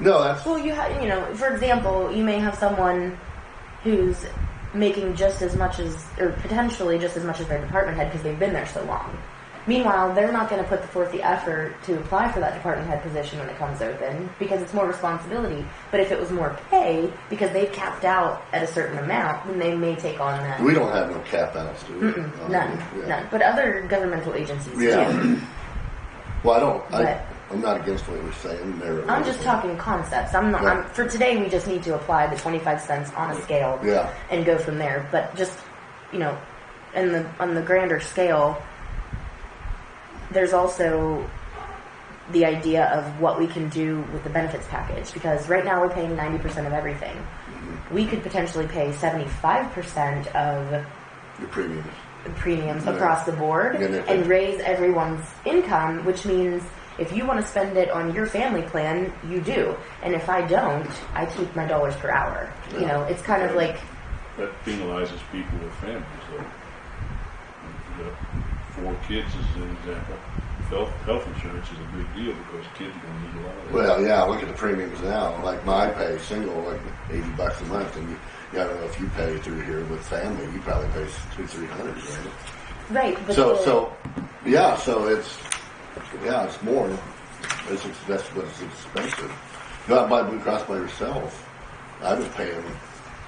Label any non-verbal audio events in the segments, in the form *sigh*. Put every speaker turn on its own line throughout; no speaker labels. No, that's
Well, you have, you know, for example, you may have someone who's making just as much as, or potentially just as much as their department head because they've been there so long. Meanwhile, they're not going to put forth the effort to apply for that department head position when it comes open because it's more responsibility. But if it was more pay, because they've capped out at a certain amount, then they may take on that.
we don't have no cap outs, do we? Um,
*clears throat* None,
yeah.
none. But other governmental agencies do.
Yeah. Well, I don't.
But-
I, I'm not against what you're saying. There.
I'm just talking concepts. I'm not.
Yeah.
I'm, for today, we just need to apply the 25 cents on a scale
Yeah.
and go from there. But just you know, in the on the grander scale, there's also the idea of what we can do with the benefits package because right now we're paying 90% of everything. We could potentially pay 75% of
Your premiums.
premiums
Yeah.
across the board
Yeah, they-
and raise everyone's income, which means if you want to spend it on your family plan, you do. And if I don't, I keep my dollars per hour. You
Yeah.
know, it's kind of
Right.
like,
That penalizes people with families, though. The four kids is an example. Health, health insurance is a big deal because kids are going to need a lot of that.
Well, yeah. Look at the premiums now. Like my pay, single, like eighty bucks a month, and you. Yeah, I don't know if you pay through here with family. You probably pay two, three hundred. Right?
right. But
So,
the-
so, yeah. So it's, yeah, it's more. It's ex- that's what it's expensive. Go out and buy Blue Cross by yourself. I was paying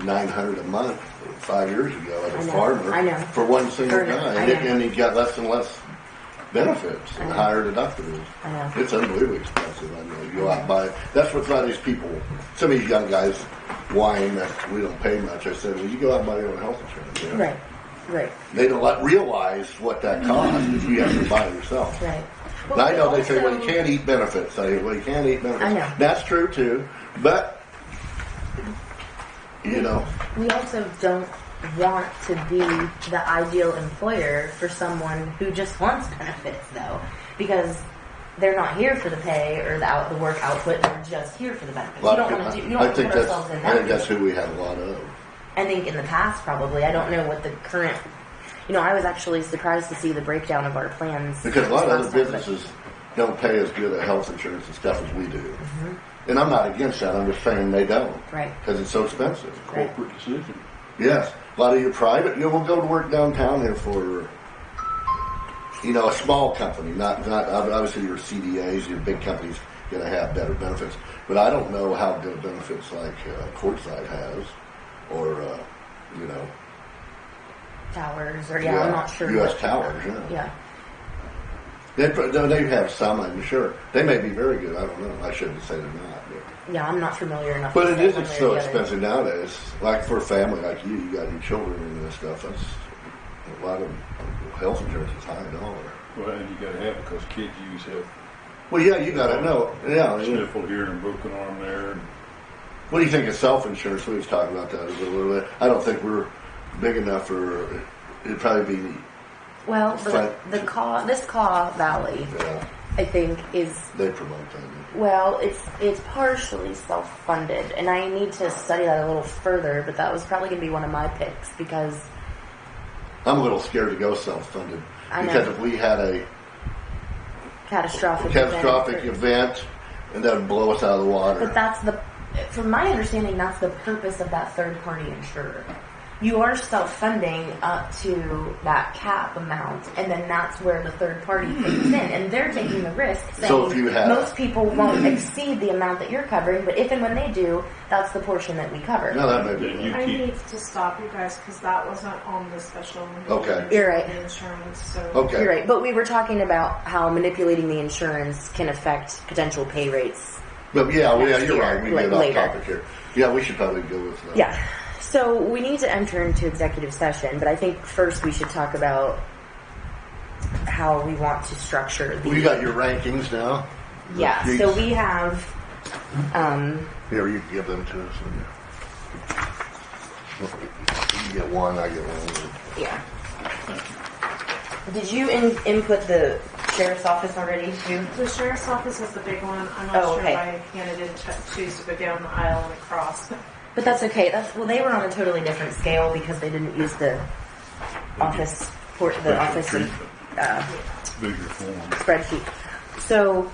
nine hundred a month five years ago as a
I know,
farmer
I know.
for one single
For-
guy,
I
and, he-
know.
and he got less and less benefits and
I know.
higher deductibles.
I know.
It's unbelievably expensive. I know. You go out and buy. That's what a lot of these people, some of these young guys, whine that we don't pay much. I said, well, you go out and buy your own health insurance. you know?
Right, right,
They don't let- realize what that costs if you have to buy it yourself.
right.
And I know they say, well,
when
you can't eat benefits. I well, you can't eat benefits.
I know.
That's true too, but you know,
we also don't want to be the ideal employer for someone who just wants benefits though because they're not here for the pay or the out the work output they're just here for the benefits
a lot
you don't
of
want to do you
people.
don't
I
want to
think
put
that's
ourselves in
I think
that
that's who we have a lot of.
I think in the past probably I don't know what the current you know I was actually surprised to see the breakdown of our plans
Because a lot of
last
other
time, but-
businesses don't pay as good at health insurance and stuff as we do. And I'm not against that. I'm just saying they don't.
Mm-hmm. Right.
Because it's so expensive.
Right.
Corporate decision.
Yes. A lot of your private, you know, we'll go to work downtown here for, you know, a small company. Not, not ob- obviously your CDAs, your big companies going to have better benefits. But I don't know how good benefits like uh, Courtside has or, uh, you know,
towers or yeah, I'm not sure
US
what-
Towers, yeah.
yeah
They, put- no, they have some, I'm sure. They may be very good. I don't know. I shouldn't say they're not. But,
yeah I'm not familiar enough
but
to
it
say
is
one
it's
way or
so
the other.
expensive nowadays. Like for a family like you, you got your children and this stuff. That's a lot of health insurance is high dollar.
Well, and you got to have because kids use health.
Well, yeah, you got to know. Oh, Yeah. yeah.
Sniffle here and broken arm there. And
What do you think of self insurance? We was talking about that a little bit. I don't think we're big enough for it'd probably be.
Well, the,
But-
the Caw, this Caw Valley,
Yeah,
I think, is
uh, they promote that.
well, it's it's partially self-funded, and I need to study that a little further. But that was probably going to be one of my picks because
I'm a little scared to go self funded
I know.
because if we had a
catastrophic. event-
catastrophic event and that would blow us out of the water.
But that's the, from my understanding, that's the purpose of that third-party insurer. You are self-funding up to that cap amount, and then that's where the third party comes in, and they're taking the risk. Saying
So if you had-
most people won't exceed the amount that you're covering, but if and when they do, that's the portion that we cover.
No, that may be.
Yeah, you-
right.
I
Keep-
need to stop you guys because that wasn't on the special.
Okay.
You're right.
Insurance, so.
Okay.
You're right, but we were talking about how manipulating the insurance can affect potential pay rates.
But yeah, yeah, you're
year,
right. We
like,
get off
later.
topic here. Yeah, we should probably go with that.
Yeah. So we need to enter into executive session, but I think first we should talk about how we want to structure the.
Well, you got your rankings now.
yeah.
Your-
So we have. Um,
Here, you can give them to us. You get one, I get one.
yeah. Did you in- input the sheriff's office already too?
The sheriff's office is the big one. I'm
Oh,
not sure
okay.
if I handed in ch- choose to go down the aisle and across. *laughs*
But that's okay. That's well, they were on a totally different scale because they didn't use the office port, the
Special
office
treatment.
uh,
bigger form.
spreadsheet. So